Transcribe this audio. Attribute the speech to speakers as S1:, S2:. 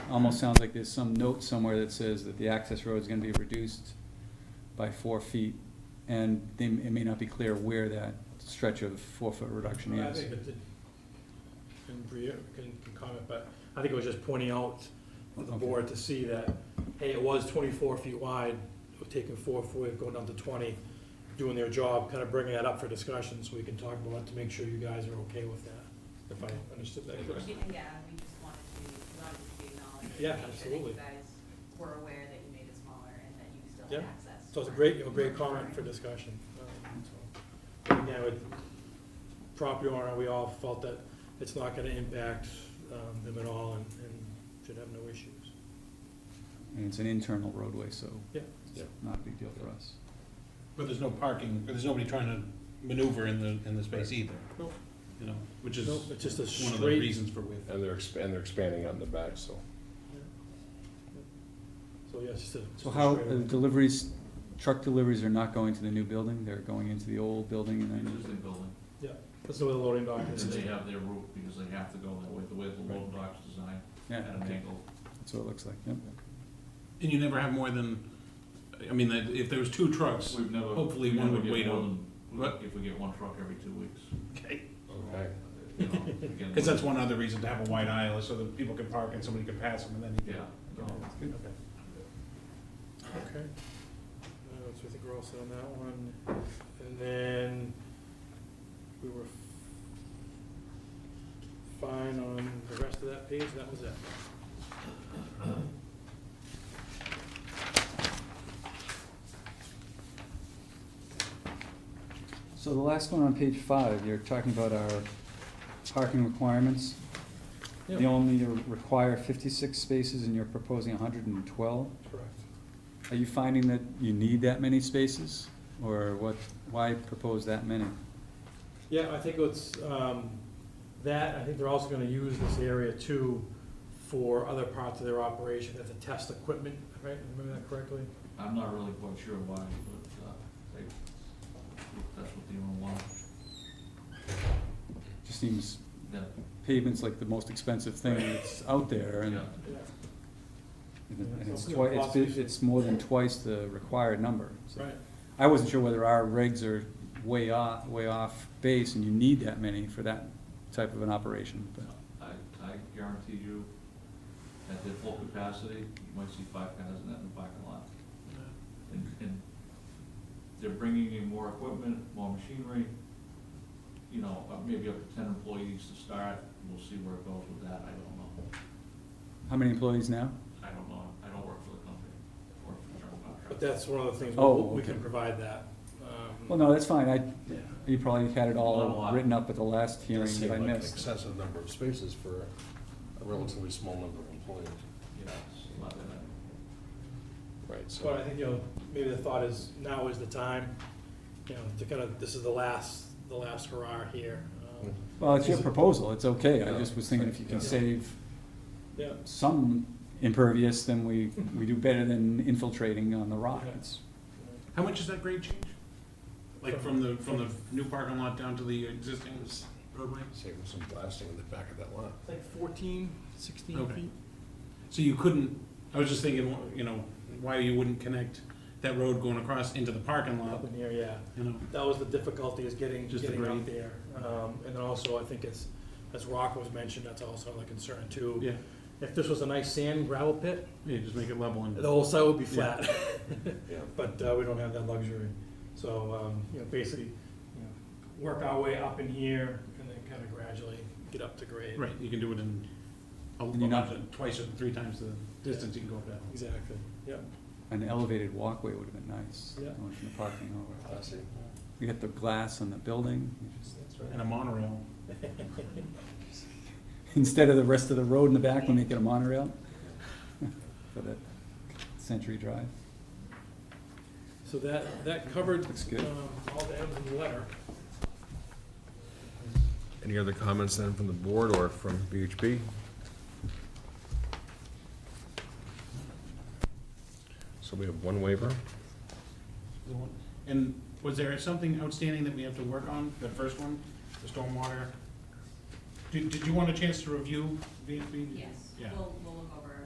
S1: almost sounds like there's some note somewhere that says that the access road is gonna be reduced by four feet, and they, it may not be clear where that stretch of four-foot reduction
S2: I
S1: is.
S2: think it did, and Bria can, can comment, but I think it was just pointing out for the
S1: Okay.
S2: board to see that, hey, it was twenty-four feet wide, we're taking four, four, going down to twenty, doing their job, kind of bringing that up for discussion, so we can talk about it to make sure you guys are okay with that, if I understood that correctly.
S3: Yeah, we just wanted to, we wanted to acknowledge. and
S2: Yeah,
S3: make sure
S2: absolutely.
S3: That you guys were aware that you made it smaller and that you still
S2: Yeah.
S3: had access.
S2: So it's a
S3: for-
S2: great, a great comment for discussion. Um, so, Again, with property owner, we all felt that it's not gonna impact, um, them at all and, and should have no issues.
S1: And it's an internal roadway, so
S2: Yeah.
S1: it's not a big deal for us.
S4: But there's no parking, there's nobody trying to maneuver in the, in the space either,
S2: Nope.
S4: you know, which is
S2: Nope, it's just a
S4: one of the
S2: straight,
S4: reasons for width.
S5: And they're, exp- and they're expanding out in the back, so.
S2: so yeah, it's just a.
S1: So how, uh, deliveries, truck deliveries are not going to the new building, they're going into the old building and
S6: The
S1: then,
S6: Existing building,
S2: That's the way the loading dock
S6: and
S2: is.
S6: they have their route because they have to go that way, the way the load dock's designed, at
S1: yeah,
S6: an
S1: okay,
S6: angle.
S1: that's what it looks like, yep.
S4: And you never have more than, I mean, that- if there was two trucks,
S6: We've never.
S4: Hopefully
S6: we
S4: one
S6: never
S4: would
S6: get
S4: wait
S6: more
S4: on-
S6: than-
S4: what?
S6: If we get one truck every two weeks.
S4: okay.
S5: Okay.
S6: You know, again,
S4: Cause that's one other reason to have a wide aisle, is so that people can park and somebody can pass them and then you
S6: Yeah,
S4: can.
S6: no,
S4: Okay.
S2: Okay. Uh, so I think we're all set on that one. And then we were fine on the rest of that page, that was it.
S1: So the last one on page five, you're talking about our parking requirements.
S2: Yep.
S1: You only require fifty-six spaces and you're proposing hundred and twelve.
S2: Correct.
S1: Are you finding that you need that many spaces, or what, why propose that many?
S2: Yeah, I think it's, um, that, I think they're also gonna use this area too for other parts of their operation as a test equipment, right? Remember that correctly?
S6: I'm not really quite sure why, but, uh, they, that's what they want. want.
S1: Just seems
S6: Yeah,
S1: pavement's like the most expensive thing that's out there, and
S6: yeah.
S2: Yeah.
S1: and it's
S2: Yeah.
S1: twi- it's, bi- it's more than twice the required number. so.
S2: Right.
S1: I wasn't sure whether our regs are way off, way off base, and you need that many for that type of an operation, but.
S6: I, I guarantee you, at their full capacity, you might see five cars in that in the parking lot. And, and they're bringing in more equipment, more machinery, you know, uh, maybe up to ten employees to start. We'll see where it goes with that, I don't know.
S1: How many employees now?
S6: I don't know, I don't work for the company, I work for general
S2: But
S6: contractor.
S2: that's one of the things,
S1: Oh,
S2: we- we can
S1: okay.
S2: provide that. Um,
S1: Well, no, that's fine, I,
S2: Yeah.
S1: you probably had it
S6: Not a
S1: all
S6: lot.
S1: written up at the last hearing that I missed.
S5: Excessive number of spaces for a relatively small number of employees.
S6: Yeah, it's a lot of that.
S5: Right,
S2: But
S5: so.
S2: I think, you know, maybe the thought is now is the time, you know, to kind of, this is the last, the last hurrah here. Um,
S4: Mm-hmm.
S1: Well, it's your proposal, it's okay, I just was thinking if you
S5: Yeah.
S1: can save
S2: Yeah,
S1: some impervious, then we, we do better than infiltrating on the rockets.
S4: How much is that grade change? Like from the, from the new parking lot down to the existing roadway?
S5: Saving some blasting in the back of that lot.
S2: it's like fourteen, sixteen
S4: Okay.
S2: feet.
S4: So you couldn't, I was just thinking, you know, why you wouldn't connect that road going across into the parking lot,
S2: Up in here, yeah.
S4: you know?
S2: That was the difficulty is getting,
S4: Just the
S2: getting out
S4: grade.
S2: there. Um, and then also, I think it's, as Rock was mentioned, that's also a concern too.
S4: Yeah,
S2: If this was a nice sand gravel pit,
S4: yeah, just make it level and.
S2: the whole site would be flat.
S5: Yeah.
S2: but uh, we don't have that luxury. So, um, you know, basically, you know, work our way up in here and then kind of gradually get up to grade.
S4: Right, you can do it in a
S1: And you're not-
S4: lot, twice or three times the distance you can go up that.
S2: Exactly, yeah.
S1: An elevated walkway would have been nice,
S2: Yeah.
S1: going from the parking over.
S5: Classy.
S1: You got the glass on the building, you just-
S4: And a monorail.
S1: instead of the rest of the road in the back, we make it a monorail. For that Century Drive.
S2: So that, that covered
S1: Looks good.
S2: um, all the ends of the letter.
S5: Any other comments then from the board or from BHP? So we have one waiver.
S4: And was there something outstanding that we have to work on, the first one, the stormwater? Did, did you want a chance to review VFB?
S3: Yes,
S4: Yeah.
S3: we'll, we'll look